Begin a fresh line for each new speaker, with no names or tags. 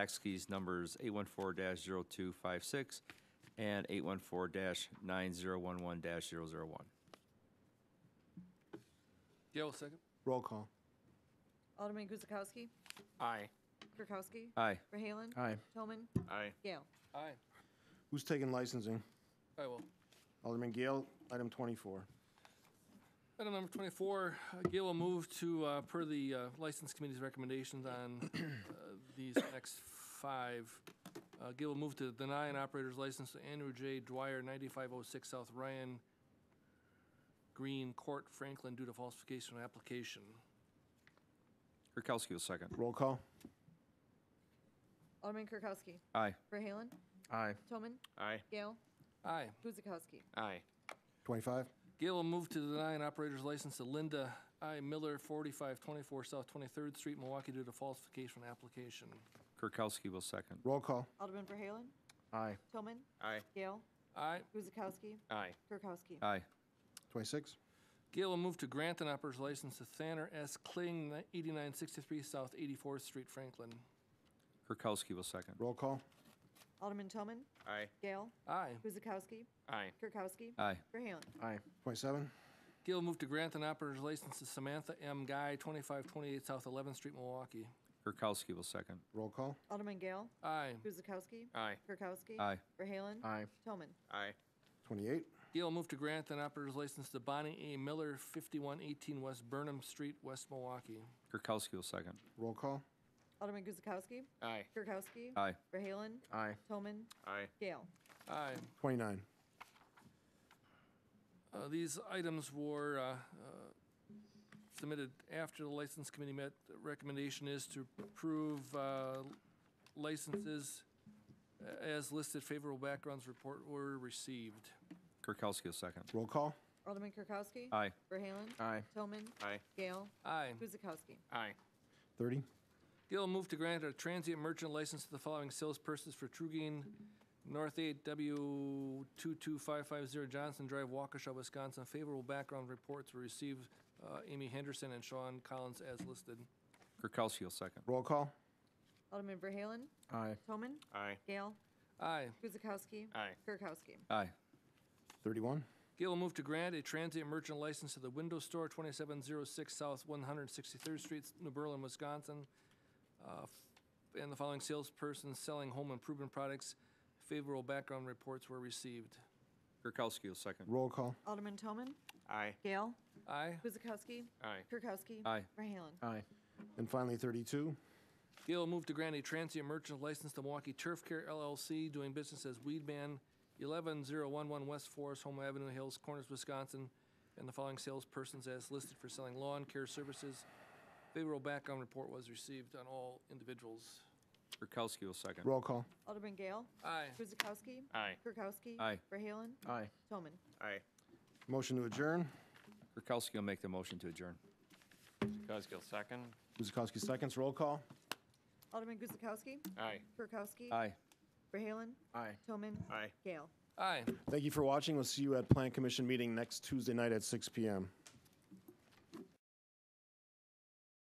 tax keys numbers 814-0256 and 814-9011-001.
Gail, second.
Roll call.
Alderman Guzekowski.
Aye.
Kirkowski.
Aye.
Verhaelen.
Aye.
Toman.
Aye.
Gale.
Aye.
Who's taking licensing?
I will.
Alderman Gale, item 24.
Item number 24, uh, Gail will move to, uh, per the uh, License Committee's recommendations on uh, these next five. Uh, Gail will move to deny an operator's license to Andrew J. Dwyer, 9506 South Ryan Green Court, Franklin, due to falsification of application.
Kirkowski will second.
Roll call.
Alderman Kirkowski.
Aye.
Verhaelen.
Aye.
Toman.
Aye.
Gale.
Aye.
Guzekowski.
Aye.
25.
Gail will move to deny an operator's license to Linda I. Miller, 4524 South 23rd Street, Milwaukee, due to falsification of application.
Kirkowski will second.
Roll call.
Alderman Verhaelen.
Aye.
Toman.
Aye.
Gale.
Aye.
Guzekowski.
Aye.
Kirkowski.
Aye.
26.
Gail will move to grant an operator's license to Thanner S. Kling, 8963 South 84th Street, Franklin.
Kirkowski will second.
Roll call.
Alderman Toman.
Aye.
Gale.
Aye.
Guzekowski.
Aye.
Kirkowski.
Aye.
Verhaelen.
Aye. 27.
Gail will move to grant an operator's license to Samantha M. Guy, 2528 South 11th Street, Milwaukee.
Kirkowski will second.
Roll call.
Alderman Gale.
Aye.
Guzekowski.
Aye.
Kirkowski.
Aye.
Verhaelen.
Aye.
Toman.
Aye.
28.
Gail will move to grant an operator's license to Bonnie A. Miller, 5118 West Burnham Street, West Milwaukee.
Kirkowski will second.
Roll call.
Alderman Guzekowski.
Aye.
Kirkowski.
Aye.
Verhaelen.
Aye.
Toman.
Aye.
Gale.
Aye.
29.
Uh, These items were uh, uh, submitted after the License Committee met. The recommendation is to approve uh, licenses uh, as listed. Favorable backgrounds report were received.
Kirkowski will second.
Roll call.
Alderman Kirkowski.
Aye.
Verhaelen.
Aye.
Toman.
Aye.
Gale.
Aye.
Guzekowski.
Aye.
30.
Gail moved to grant a transient merchant license to the following salespersons for Trugain, North 8 W22550 Johnson Drive, Waukesha, Wisconsin. Favorable background reports were received. Uh, Amy Henderson and Sean Collins as listed.
Kirkowski will second.
Roll call.
Alderman Verhaelen.
Aye.
Toman.
Aye.
Gale.
Aye.
Guzekowski.
Aye.
Kirkowski.
Aye.
31.
Gail will move to grant a transient merchant license to the Window Store, 2706 South 163rd Street, New Berlin, Wisconsin, uh, f- and the following salesperson selling home improvement products. Favorable background reports were received.
Kirkowski will second.
Roll call.
Alderman Toman.
Aye.
Gale.
Aye.
Guzekowski.
Aye.
Kirkowski.
Aye.
Verhaelen.
Aye. And finally, 32.
Gail will move to grant a transient merchant license to Milwaukee Turf Care LLC, doing business as Weedman, 11011 West Forest, Home Avenue Hills, Corners, Wisconsin, and the following salespersons as listed for selling lawn care services. Favorable background report was received on all individuals.
Kirkowski will second.
Roll call.
Alderman Gale.
Aye.
Guzekowski.
Aye.
Kirkowski.
Aye.
Verhaelen.
Aye.
Toman.
Aye.
Motion to adjourn.
Kirkowski will make the motion to adjourn.
Kuzgill, second.
Guzekowski seconds. Roll call.
Alderman Guzekowski.
Aye.
Kirkowski.
Aye.
Verhaelen.
Aye.
Toman.
Aye.
Gale.
Aye.
Thank you for watching. We'll see you at Plan Commission meeting next Tuesday night at 6 p.m.